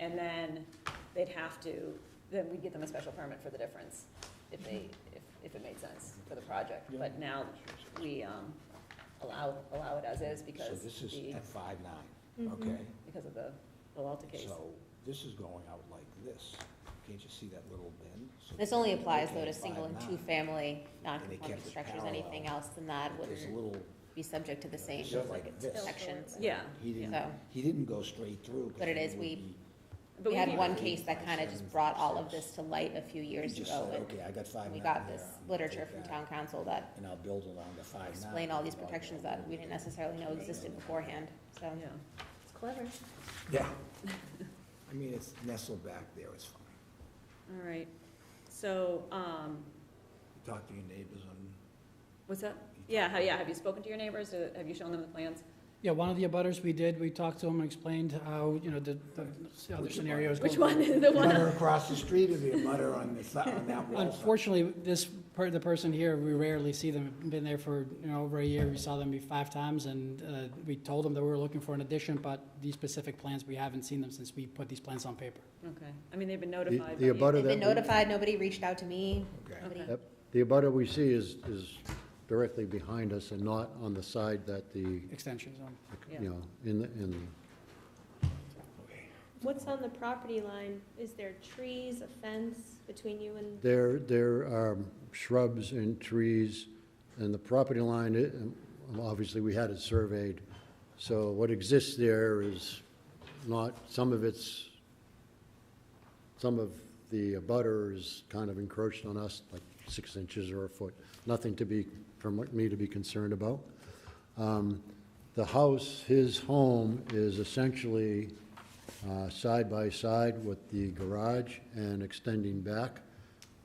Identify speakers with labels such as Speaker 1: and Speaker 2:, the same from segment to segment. Speaker 1: and then they'd have to, then we'd get them a special permit for the difference, if they, if, if it made sense for the project. But now, we, um, allow, allow it as is
Speaker 2: So
Speaker 1: because
Speaker 2: this is
Speaker 1: the,
Speaker 2: at five
Speaker 1: Mm-hmm.
Speaker 2: nine, okay?
Speaker 1: because of the, the Lalta case.
Speaker 2: So this is going out like this. Can't you see that little bend? So
Speaker 3: This only applies though
Speaker 2: okay,
Speaker 3: to single and
Speaker 2: 5'9",
Speaker 3: two-family,
Speaker 2: they kept
Speaker 3: non-conforming
Speaker 2: it
Speaker 3: structures,
Speaker 2: parallel.
Speaker 3: anything else than that
Speaker 2: but There's a
Speaker 3: wouldn't
Speaker 2: little,
Speaker 3: be subject to the same
Speaker 2: just like this.
Speaker 3: sections.
Speaker 1: Yeah,
Speaker 2: He didn't,
Speaker 3: So-
Speaker 2: he didn't go straight through. 'cause
Speaker 3: But it
Speaker 2: then
Speaker 3: is, we-
Speaker 2: would be-
Speaker 1: but
Speaker 3: We
Speaker 1: we
Speaker 3: had
Speaker 1: keep-
Speaker 3: one case that kind of just brought all of this to light a few
Speaker 2: He
Speaker 3: years
Speaker 2: just
Speaker 3: ago,
Speaker 2: said,
Speaker 3: and
Speaker 2: okay, I got five nine
Speaker 3: we got
Speaker 2: there,
Speaker 3: this
Speaker 2: I'm gonna
Speaker 3: literature
Speaker 2: take
Speaker 3: from
Speaker 2: that,
Speaker 3: town council that
Speaker 2: And I'll build along the five nine.
Speaker 3: explained all these protections that we didn't necessarily know existed beforehand, so.
Speaker 1: Yeah.
Speaker 3: It's clever.
Speaker 2: Yeah. I mean, it's nestled back there, it's fine.
Speaker 1: All right, so, um,
Speaker 2: Talk to your neighbors on.
Speaker 1: what's that? Yeah, ha- yeah, have you spoken to your neighbors, Uh, have you shown them the plans?
Speaker 4: Yeah, one of the abutters we did, we talked to him and explained how, you know, the, the the other
Speaker 2: Which
Speaker 4: scenarios. go
Speaker 1: Which one, the one,
Speaker 2: Butter across the street or the butter on the, si- on that wall?
Speaker 4: Unfortunately, this, per- the person here, we rarely see them, been there for, you know, over a year, we saw them maybe five times, and uh, we told them that we were looking for an addition, but these specific plans, we haven't seen them since we put these plans on paper.
Speaker 1: okay, I mean, they've been
Speaker 5: The-
Speaker 1: notified. but
Speaker 5: The
Speaker 1: you-
Speaker 5: abutter
Speaker 3: They've been
Speaker 5: that,
Speaker 3: notified, nobody reached out to me,
Speaker 2: Okay.
Speaker 3: nobody.
Speaker 1: Okay.
Speaker 5: we- the abutter we see is, is directly behind us and not on the side that the,
Speaker 4: Extensions on.
Speaker 1: Yeah.
Speaker 5: you know, in, the in, the-
Speaker 6: What's on the property line? Is there trees, a fence between you and,
Speaker 5: there, there are shrubs and trees, and the property line, it- um, obviously, we had it surveyed, so what exists there is not, some of it's, some of the abutter is kind of encroached on us, like six inches or a foot, nothing to be, from what me to be concerned about. Um, The house, his home, is essentially uh, side by side with the garage and extending back.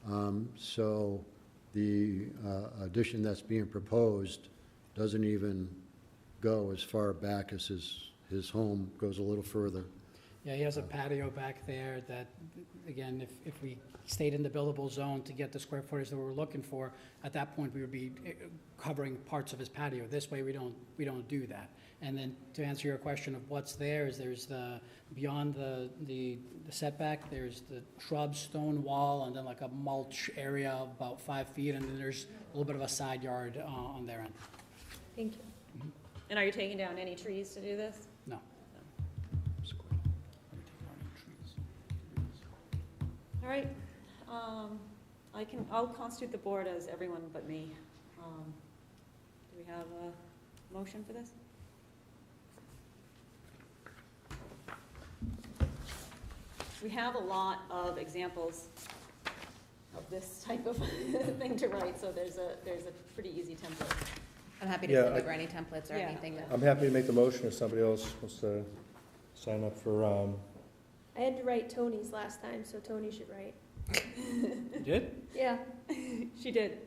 Speaker 5: Um, So the uh, addition that's being proposed doesn't even go as far back as his, his home, goes a little further.
Speaker 4: Yeah, he has a patio back there that, again, if, if we stayed in the buildable zone to get the square footage that we were looking for, at that point, we would be eh, covering parts of his patio. This way, we don't, we don't do that. And then to answer your question of what's there, is there's the, beyond the, the setback, there's the shrub, stone wall, and then like a mulch area of about five feet, and then there's a little bit of a side yard uh, on their end.
Speaker 6: thank you.
Speaker 1: And are you taking down any trees to do this?
Speaker 4: No.
Speaker 1: All right, um, I can, I'll constitute the board as everyone but me. Um, Do we have a motion for this? We have a lot of examples of this type of thing to write, so there's a, there's a pretty easy template.
Speaker 3: I'm happy to
Speaker 7: Yeah,
Speaker 3: send
Speaker 7: I-
Speaker 3: over any templates or
Speaker 1: Yeah.
Speaker 3: anything that.
Speaker 7: I'm happy to make the motion if somebody else wants to sign up for, um,
Speaker 6: I had to write Tony's last time, so Tony should write.
Speaker 4: Did?
Speaker 6: Yeah,
Speaker 1: She did.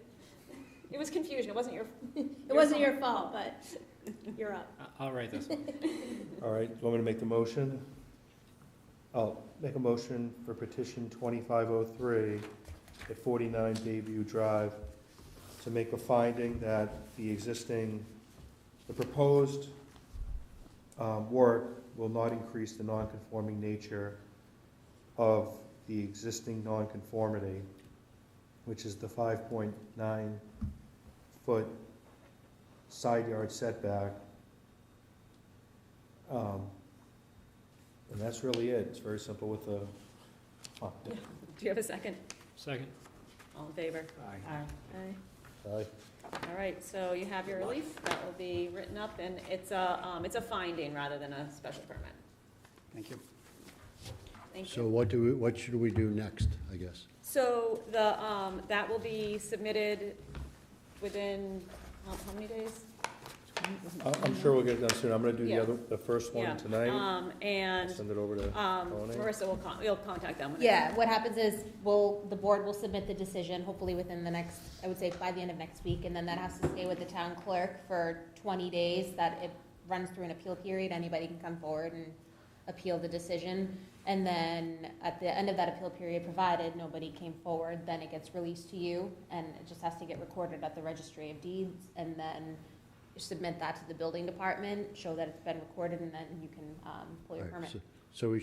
Speaker 1: It was confusion, it wasn't your,
Speaker 6: it wasn't your fault, but you're up.
Speaker 4: I'll write this one.
Speaker 7: all right, do you want me to make the motion? I'll make a motion for petition twenty-five oh three at forty-nine Bayview Drive to make a finding that the existing, the proposed, um, work will not increase the nonconforming nature of the existing nonconformity, which is the five point nine foot side yard setback. Um, And that's really it, it's very simple with the, oh,
Speaker 1: do you have a second?
Speaker 4: Second.
Speaker 1: All in favor?
Speaker 2: Aye.
Speaker 1: Aye.
Speaker 7: aye.
Speaker 1: All right, so you have your relief, that will be written up, and it's a, um, it's a finding rather than a special permit.
Speaker 4: Thank you.
Speaker 1: Thank
Speaker 5: So
Speaker 1: you.
Speaker 5: what do we, what should we do next, I guess?
Speaker 1: So the, um, that will be submitted within, how, how many days?
Speaker 7: I- I'm sure we'll get it done soon, I'm gonna do the
Speaker 1: Yeah.
Speaker 7: other, the first
Speaker 1: Yeah.
Speaker 7: one tonight,
Speaker 1: Um, and,
Speaker 7: send it over to,
Speaker 1: um,
Speaker 7: Tony?
Speaker 1: Marissa will con, you'll contact them. when it-
Speaker 3: Yeah, what happens is, we'll, the board will submit the decision, hopefully within the next, I would say by the end of next week, and then that has to stay with the town clerk for twenty days, that it runs through an appeal period, anybody can come forward and appeal the decision. And then, at the end of that appeal period, provided nobody came forward, then it gets released to you, and it just has to get recorded at the registry of deeds, and then submit that to the building department, show that it's been recorded, and then you can, um, pull your
Speaker 5: All right,
Speaker 3: permit.
Speaker 5: so- So we